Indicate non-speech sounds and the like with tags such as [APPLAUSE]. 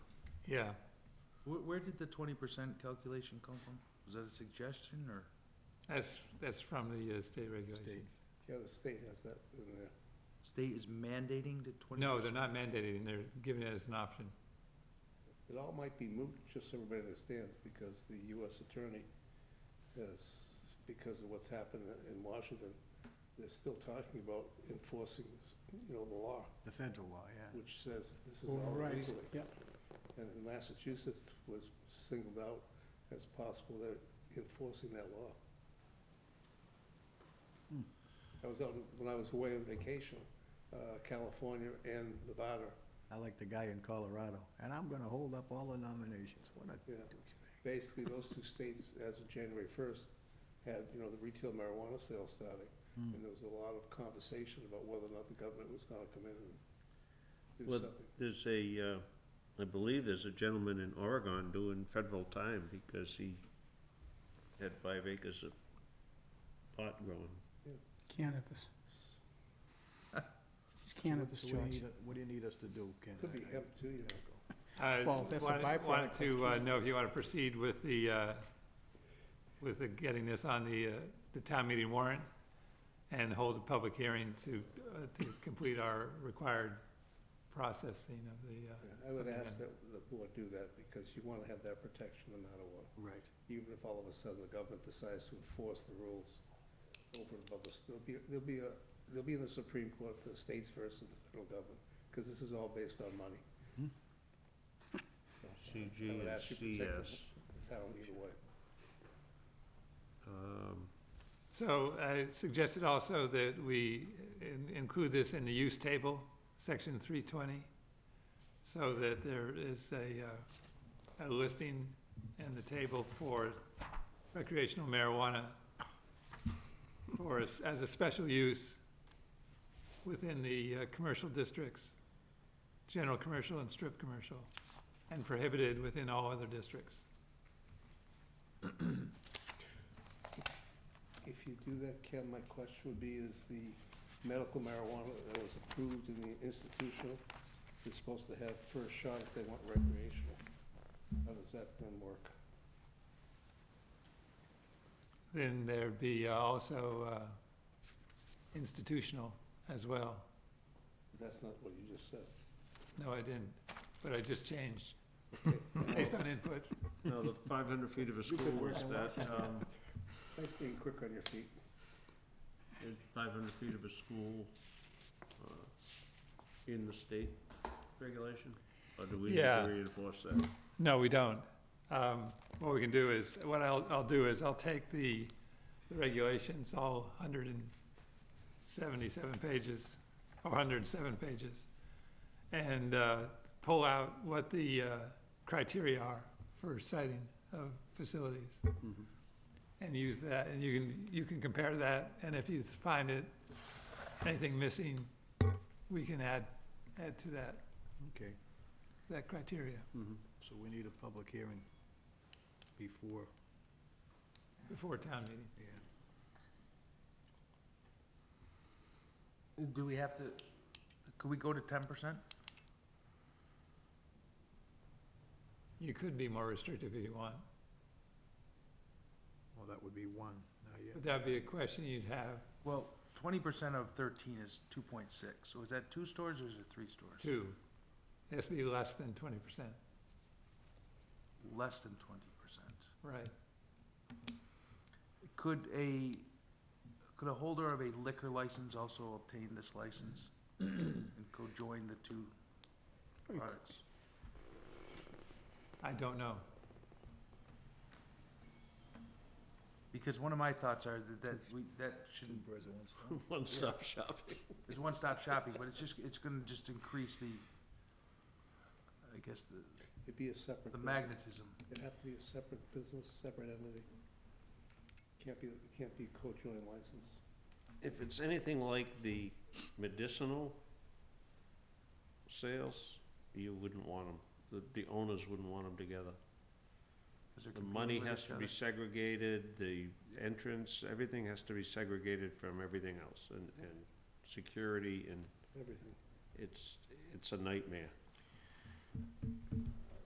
yeah. Where, where did the twenty percent calculation come from? Was that a suggestion or? That's, that's from the uh, state regulations. Yeah, the state has that in there. State is mandating the twenty percent? No, they're not mandating, they're giving it as an option. It all might be moot, just so everybody understands, because the US attorney has, because of what's happened in Washington, they're still talking about enforcing, this, you know, the law, The federal law, yeah. which says this is all Right, legally. yeah. And in Massachusetts was singled out as possible, they're enforcing that law. Hmm. I was out, when I was away on vacation, uh, California and Nevada, I like the guy in Colorado, and I'm gonna hold up all the nominations. What a Yeah. douchebag. basically, those two states, as of January first, had, you know, the retail marijuana sale starting, Hmm. and there was a lot of conversation about whether or not the government was gonna come in and do Well, something. There's a, uh, I believe there's a gentleman in Oregon doing federal time because he had five acres of pot growing. Cannabis. It's cannabis, So what do you George. need- What do you need us to do, Ken? Could be hemp too, you know. I Well, that's a wanted- wanted byproduct to of uh, know if you want to proceed with the, uh, with the getting this on the, uh, the town meeting warrant and hold a public hearing to, uh, to complete our required processing of the, uh, Yeah, I would ask that the board do that, because you wanna have that protection no matter what, Right. even if all of a sudden the government decides to enforce the rules over and above us, there'll be, there'll be a, there'll be in the Supreme Court for the states versus the federal government, cause this is all based on money. Hmm. So, I CG would and ask you to protect the- CS. the town either way. Um, So I suggested also that we in- include this in the use table, section three twenty, so that there is a, uh, a listing in the table for recreational marijuana for, as as a special use within the uh, commercial districts, general commercial and strip commercial, and prohibited within all other districts. If you do that, Ken, my question would be, is the medical marijuana that was approved in the institutional, is supposed to have first shot if they want recreational. How does that then work? Then there'd be uh, also uh, institutional as well. That's not what you just said. No, I didn't, but I just [LAUGHS] changed Okay, based on input. No, the five hundred feet of a school was that, um, Nice being quick on your feet. five hundred feet of a school, uh, in the state regulation? Or do we need Yeah. to reinforce that? No, we don't. Um, What we can do is, what I'll, I'll do is I'll take the the regulations, all 177 pages, or 107 pages, and uh, pull out what the uh, criteria are for citing of facilities. Mhm. and use that, and you can, you can compare that, and if you find it, anything missing, we can add, add to that, Okay, that criteria Mhm. so we need a public hearing [LAUGHS] before, before town meeting. yeah. Do we have to, could we go to ten percent? You could be more restrictive if you want, Well, that would be one, now you, but that'd be a question you'd have Well, twenty percent of thirteen is two point six, so is that two stores or is it three stores? too. It has to be less than twenty percent, Less than twenty percent. right? Could a, could a holder of a liquor license also obtain this [CLEARS THROAT] license and co-join the two products? I don't know. Because one of my thoughts are that, that we, that shouldn't, One-stop shopping. it's one-stop shopping, but it's just, it's gonna just increase the, I guess, the, It'd be a separate. the business. magnetism. It'd have to be a separate business, separate entity. Can't be, can't be co-joint license. If it's anything like the medicinal sales, you wouldn't want them, the, the owners wouldn't want them together. 'cause they're The competing money with has each to be other. segregated, the entrance, everything has to be segregated from everything else, and, and security, and Everything. it's, it's a nightmare.